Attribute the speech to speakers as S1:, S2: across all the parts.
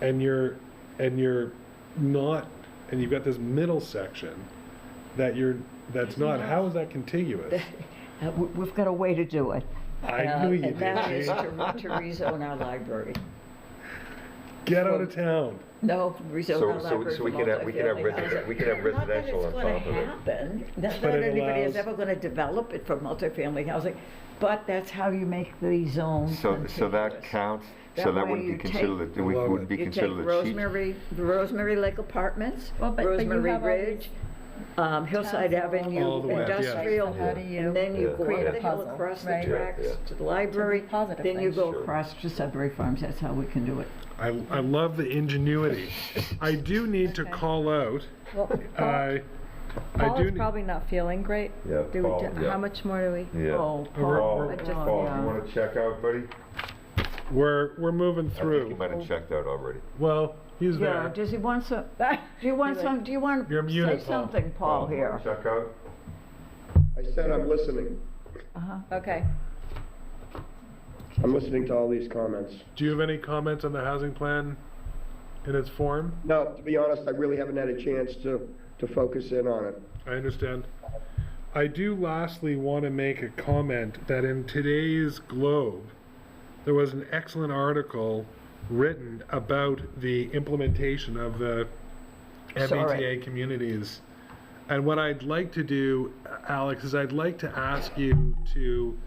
S1: and you're and you're not and you've got this middle section that you're that's not how is that contiguous
S2: Uh, we- We've got a way to do it.
S1: i
S2: Uh,
S1: knew you
S2: And that
S1: did
S2: is to
S1: Jane.
S2: to rezone our library.
S1: get out of town
S2: No, rezone
S3: So-
S2: our
S3: so-
S2: library
S3: so we
S2: for
S3: could have- we could have
S2: multifamily
S3: resi-
S2: housing.
S3: we could have residential on
S2: Not that it's
S3: top of
S2: going
S3: it.
S2: to happen, not
S1: But
S2: that
S1: it
S2: anybody is
S1: allows-
S2: ever going to develop it for multifamily housing, but that's how you make the zone
S3: So, so that
S2: contiguous.
S3: counts, so
S2: That
S3: that
S2: way
S3: wouldn't be
S2: you take-
S3: considered, a- we
S1: Love
S3: would
S1: it.
S3: be
S2: You take
S3: considered a cheat.
S2: Rosemary, Rosemary Lake Apartments,
S4: Well, but- but you
S2: Rosemary
S4: have all
S2: Ridge, um, Hillside
S4: towns along
S1: All the
S2: Avenue,
S1: way up, yeah.
S2: industrial,
S4: How do you
S2: and then you
S3: Yeah.
S2: go
S3: create
S2: up
S3: a
S2: the hill
S4: puzzle,
S2: across the
S4: right?
S3: Yeah, yeah.
S2: tracks to the library,
S4: positive
S2: then you
S4: thing.
S2: go
S3: Sure.
S2: across to Sudbury Farms, that's how we can do it.
S1: i, I love the ingenuity i do need to call out
S4: Well, Paul
S1: i Uh, i
S4: Paul
S1: do
S4: is
S1: need,
S4: probably not feeling great.
S3: Yeah,
S4: Do we,
S3: Paul,
S4: do-
S3: yeah. Mm-hmm.
S4: how much more do we?
S3: Yeah.
S2: Oh,
S1: We're-
S2: Paul,
S3: Paul,
S2: God,
S3: Paul,
S2: yeah.
S3: you wanna check out, buddy?
S1: we're we're moving
S3: I think you
S1: through
S3: might
S4: Oh.
S3: have checked out already.
S1: well he's
S2: Yeah,
S1: there
S2: does he want some, do you want some, do you want,
S1: You're
S2: say
S1: muted, Paul.
S2: something,
S3: Oh,
S2: Paul, here?
S3: Um, Check out?
S5: I said I'm listening.
S2: Uh-huh.
S4: Okay.
S5: I'm listening to all these comments.
S1: do you have any comments on the housing plan in its form
S5: No, to be honest, I really haven't had a chance to, to focus in on it.
S1: I understand. I do lastly want to make a comment that in today's Globe, there was an excellent article written about the implementation of the MBTA communities. And what I'd like to do, Alex, is I'd like to ask you to,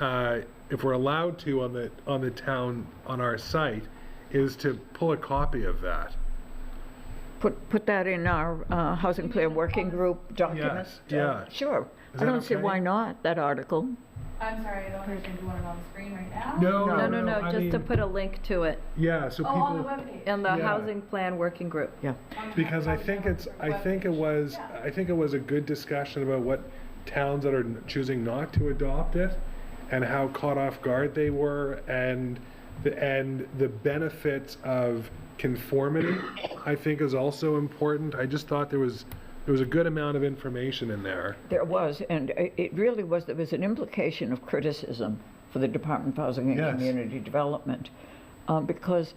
S1: uh, if we're allowed to on the, on the town, on our site, is to pull a copy of that.
S2: Put, put that in our uh, Housing Plan Working Group documents?
S1: yeah.
S2: Sure.
S1: Is
S2: I
S1: that
S2: don't see
S1: okay?
S2: why not, that article.
S6: I'm sorry, I don't understand. Do you want it on the screen right now?
S4: No, no, no, just to put a link to it
S1: Yeah, so
S6: Oh,
S1: people.
S6: on the webpage.
S4: in the
S1: Yeah.
S4: housing plan working group.
S2: Yeah.
S1: Because I think it's, I think it was, I think it was a good discussion about what towns that are choosing not to adopt it and how caught off guard they were and, the and the benefits of conformity, I think is also important. I just thought there was, there was a good amount of information in there.
S2: There was, and i- it really was, there was an implication of criticism for the Department of Housing and
S1: Yes.
S2: Community Development. um, Because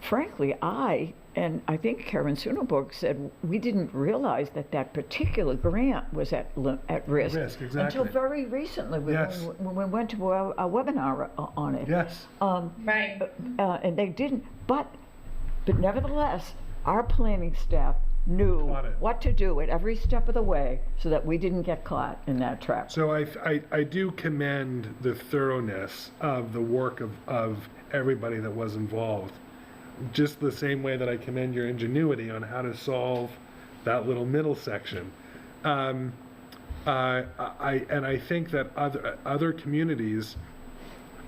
S2: frankly, I, and I think Karen Sunnaburg said, we didn't realize that that particular grant was at, li- at risk.
S1: risk,
S2: Until
S1: exactly.
S2: very recently, when
S1: Yes.
S2: we- when we went to a a webinar o- on it.
S1: Yes.
S2: Um,
S6: Right.
S2: uh, and they didn't, but, but nevertheless, our planning staff knew
S1: Caught it.
S2: what to do at every step of the way so that we didn't get caught in that trap.
S1: So I, I, I do commend the thoroughness of the work of, of everybody that was involved. Just the same way that I commend your ingenuity on how to solve that little middle section. Um, uh, I, and I think that other, other communities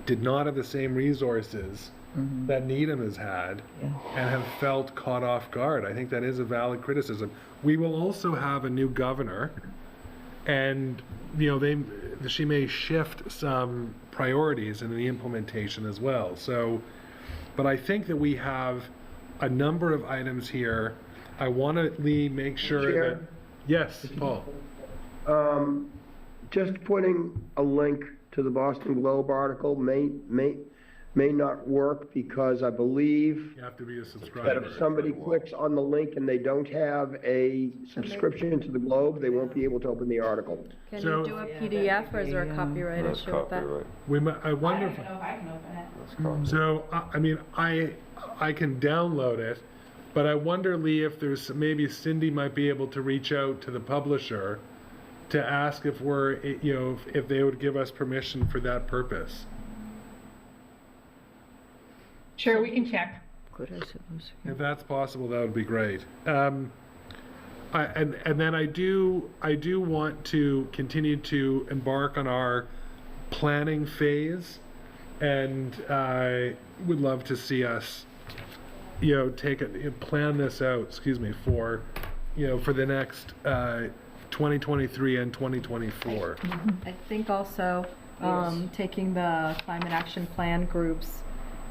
S1: did not have the same resources that Needham has had and have felt caught off guard. I think that is a valid criticism. We will also have a new governor and you know they she may shift some priorities in the implementation as well so but i think that we have a number of items here i want to lee make sure that
S5: Chair?
S1: yes paul
S5: Um, just putting a link to the Boston Globe article may, may, may not work because I believe
S1: you have to be a subscriber
S5: that if somebody clicks on the link and they don't have a subscription to the Globe, they won't be able to open the article.
S4: Can
S1: So-
S4: you do a PDF or is there a copyright
S3: That's
S4: issue with that?
S3: copyright,
S1: we might, i
S6: I
S1: wonder
S6: don't
S1: if,
S6: even know if I can open it.
S3: that's copyright.
S1: so I, I mean i i can download it but i wonder lee if there's maybe cindy might be able to reach out to the publisher to ask if we're eh, you know if, if they would give us permission for that purpose
S6: Sure, we can check.
S2: Good, I suppose.
S1: If that's possible, that would be great. Um, I, and and then I do I do want to continue to embark on our planning phase, and I would love to see us, you know, take it you know, plan this out. Excuse me for, you know, for the next uh, 2023 and 2024.
S4: I think also, um, taking the climate action plan groups,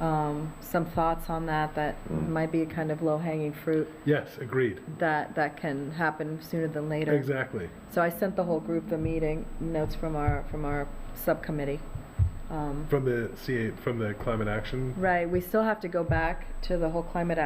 S4: um, some thoughts on that, that
S3: Mm.
S4: might be kind of low hanging fruit
S1: Yes, agreed.
S4: that, that can happen sooner than later.
S1: Exactly.
S4: So I sent the whole group the meeting notes from our, from our subcommittee. Um,
S1: From the CA, from the climate action
S4: Right, we still have to go back to the whole climate action